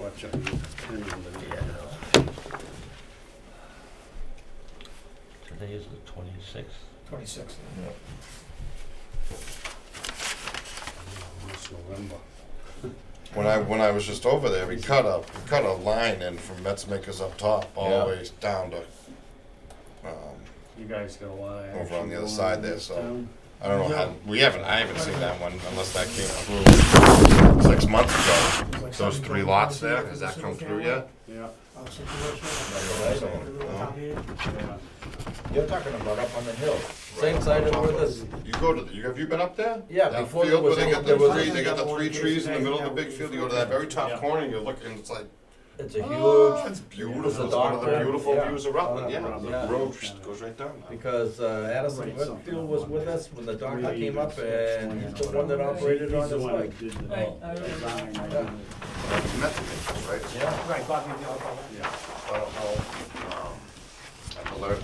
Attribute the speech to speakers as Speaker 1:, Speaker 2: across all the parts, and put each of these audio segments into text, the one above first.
Speaker 1: watch on the
Speaker 2: Yeah, no. Today is the twenty-sixth.
Speaker 3: Twenty-six.
Speaker 1: It's November.
Speaker 4: When I, when I was just over there, we cut a, we cut a line in from Metzmakers up top, all
Speaker 2: Yeah.
Speaker 4: the way down to, um,
Speaker 1: You guys got a lot of
Speaker 4: Over on
Speaker 1: action
Speaker 4: the other
Speaker 1: going
Speaker 4: side
Speaker 1: on
Speaker 4: there,
Speaker 1: this
Speaker 4: so-
Speaker 1: town.
Speaker 4: I don't know how, we haven't, I haven't seen that one unless that came through six months ago. Those three lots there, has that come through yet?
Speaker 1: Yeah,
Speaker 3: uh,
Speaker 1: yeah.
Speaker 5: You're talking about up on the hill.
Speaker 2: Same side of where this,
Speaker 4: You go to, the- you, have you been up there?
Speaker 2: Yeah,
Speaker 4: That
Speaker 2: before there
Speaker 4: field where
Speaker 2: was
Speaker 4: they
Speaker 2: any-
Speaker 4: got
Speaker 2: there
Speaker 4: the
Speaker 2: was-
Speaker 4: three, they got the three trees in the middle of the big field, you go to that very
Speaker 1: Yeah.
Speaker 4: top corner, and you look, and it's like,
Speaker 2: it's a
Speaker 4: oh,
Speaker 2: huge,
Speaker 4: it's beautiful,
Speaker 2: a
Speaker 4: it's one of the
Speaker 2: dark-
Speaker 4: beautiful
Speaker 2: yeah.
Speaker 4: views of Rutland, yeah,
Speaker 1: Rutland,
Speaker 4: the
Speaker 2: yeah.
Speaker 4: road just goes right down. now.
Speaker 2: because uh, Addison
Speaker 1: Right,
Speaker 2: Whitfield was with us when the doctor
Speaker 1: Three
Speaker 2: came up
Speaker 1: six
Speaker 2: and
Speaker 1: one
Speaker 2: he's the one that
Speaker 1: whatever.
Speaker 2: operated on
Speaker 1: He's the
Speaker 2: his
Speaker 1: one that
Speaker 2: leg.
Speaker 1: did the
Speaker 3: Right, I
Speaker 1: design, I
Speaker 2: remember.
Speaker 1: didn't-
Speaker 4: That's Metzmakers, right?
Speaker 2: Yeah,
Speaker 3: Right, Bobby, the other
Speaker 1: Yeah,
Speaker 4: I don't know, um, I've alert-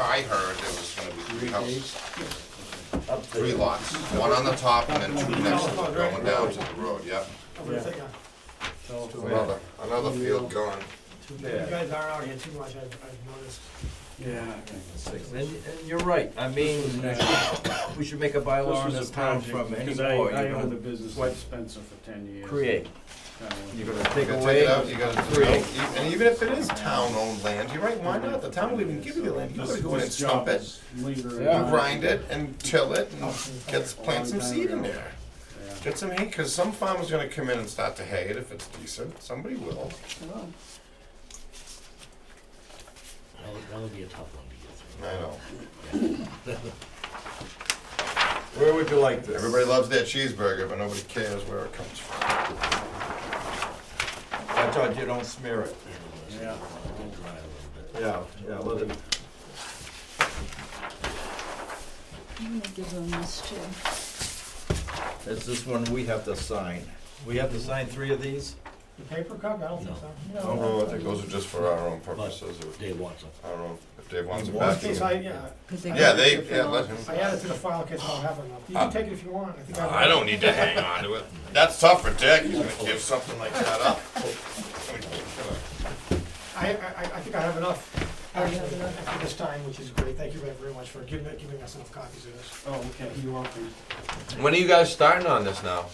Speaker 4: I, I heard there was gonna be three houses,
Speaker 2: up there.
Speaker 4: three lots, one on the top and then two next to it going down to the road, yeah.
Speaker 1: so-
Speaker 4: Another, another field gone.
Speaker 3: You guys are out here too much, I've, I've noticed.
Speaker 1: Yeah. I think it's-
Speaker 2: And, and you're right, I mean, we should make a bylaw on
Speaker 1: This
Speaker 2: this
Speaker 1: was a
Speaker 2: town
Speaker 1: project,
Speaker 2: from any
Speaker 1: because I,
Speaker 2: law
Speaker 1: I
Speaker 2: you're
Speaker 1: owned the
Speaker 2: gonna
Speaker 1: business
Speaker 2: swipe-
Speaker 1: with Spencer for ten years.
Speaker 2: create.
Speaker 1: Kinda went-
Speaker 2: You're gonna take
Speaker 4: You gotta take
Speaker 2: away.
Speaker 4: it out, you gotta
Speaker 2: Three.
Speaker 4: create, and even if it is town-owned land, you're right, why not? The town will even give you the land, you gotta go in and
Speaker 1: This job
Speaker 4: stump it,
Speaker 1: is lingering
Speaker 2: Yeah.
Speaker 1: on.
Speaker 4: grind it and till it and get, plant some seed in there.
Speaker 1: Yeah.
Speaker 4: Get some hay, cause some farmer's gonna come in and start to hay it if it's decent, somebody will.
Speaker 2: That'll- That'll be a tough one to get through.
Speaker 4: I know,
Speaker 2: Where would you like this?
Speaker 4: everybody loves their cheeseburger, but nobody cares where it comes from.
Speaker 2: I told you don't smear it.
Speaker 1: Yeah.
Speaker 2: Yeah, yeah, let it.
Speaker 6: I'm gonna give them this too.
Speaker 2: It's this one we have to sign. We have to sign three of these?
Speaker 3: The paper cup, I don't think so.
Speaker 4: Oh, no, I think those are just for our own purposes, or,
Speaker 5: Dave wants them.
Speaker 4: I don't know, if Dave wants it
Speaker 3: Well,
Speaker 4: back.
Speaker 3: in case I, yeah,
Speaker 4: Yeah, they, yeah, let him.
Speaker 3: I added to the file in case I don't have enough. You
Speaker 4: Uh,
Speaker 3: can take it if you want, I think I.
Speaker 4: I don't need to hang on to it. That's tough for Dick, he's gonna give something like that up.
Speaker 3: I, I, I- I think I have enough,
Speaker 6: Oh, you have
Speaker 3: actually,
Speaker 6: enough?
Speaker 3: for this time, which is great. Thank you very, very much for giving, giving us enough copies of this.
Speaker 1: Oh, okay, you want these?
Speaker 7: When are you guys starting on this now?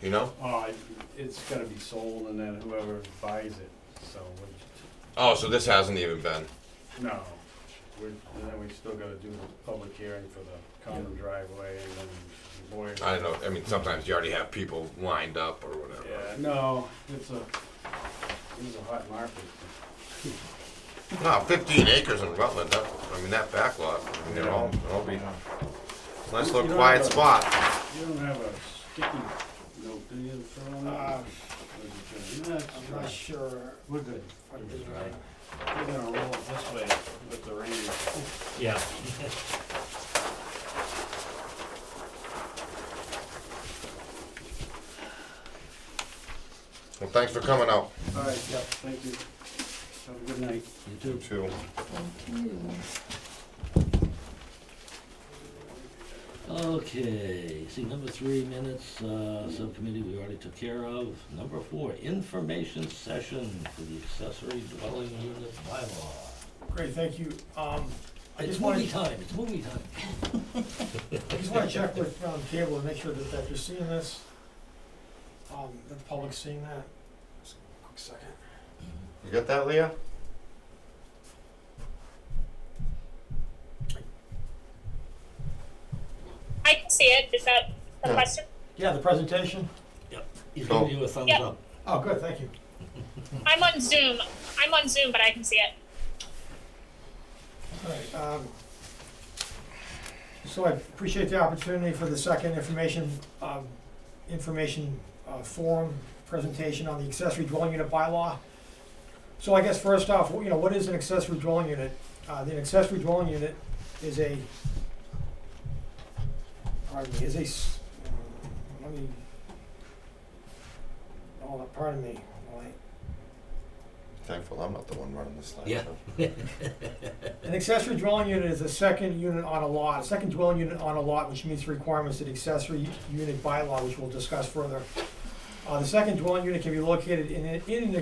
Speaker 7: You know?
Speaker 1: Oh, I- it's gotta be sold and then whoever buys it, so, we-
Speaker 7: Oh, so this hasn't even been.
Speaker 1: no. We're, and then we still gotta do the public hearing for the common driveway and then Boyer.
Speaker 7: I don't know. I mean, sometimes you already have people lined up or whatever.
Speaker 1: Yeah, no, it's a, it's a hot market.
Speaker 4: No, fifteen acres in Rutland, that, I mean, that back lot, I mean, they're all, they'll be, nice
Speaker 1: You
Speaker 4: little
Speaker 1: don't
Speaker 4: quiet
Speaker 1: have a-
Speaker 4: spot.
Speaker 1: You don't have a sticky note, do you, for all
Speaker 3: Uh,
Speaker 1: that? Or is it-
Speaker 3: I'm not sure.
Speaker 1: We're good.
Speaker 3: if I did
Speaker 1: Right. We're gonna roll it this way with the rain.
Speaker 2: Yeah.
Speaker 4: Well, thanks for coming out.
Speaker 1: All right, yeah, thank you. Have a good night.
Speaker 4: You too. Too.
Speaker 2: Okay, see, number three minutes, uh, subcommittee we already took care of. Number four, information session for the accessory dwelling unit bylaw.
Speaker 3: Great, thank you. Um, I
Speaker 2: It's
Speaker 3: just wanted,
Speaker 2: movie time, it's movie time.
Speaker 3: I just wanna check with, um, cable and make sure that, that you're seeing this. Um, that the public's seeing that. Just a Quick second.
Speaker 4: You got that, Leah?
Speaker 8: I can see it. Is that the
Speaker 4: Yeah.
Speaker 8: question?
Speaker 3: Yeah, the presentation?
Speaker 2: He's
Speaker 4: Cool.
Speaker 2: giving you a thumbs
Speaker 8: Yep.
Speaker 2: up.
Speaker 3: Oh, good, thank you.
Speaker 8: I'm on Zoom. I'm on Zoom, but I can see it.
Speaker 3: Alright, um, so I appreciate the opportunity for the second information, um, information, uh, forum presentation on the accessory dwelling unit bylaw. So I guess first off, you know, what is an accessory dwelling unit? Uh, the accessory dwelling unit is a, pardon me, is a, s- let me, oh, pardon me, well, I-
Speaker 4: Thankful I'm not the one running this slide.
Speaker 2: Yeah.
Speaker 3: An accessory dwelling unit is a second unit on a lot, a second dwelling unit on a lot which meets the requirements of the accessory unit bylaw, which we'll discuss further. Uh, the second dwelling unit can be located in, an- in an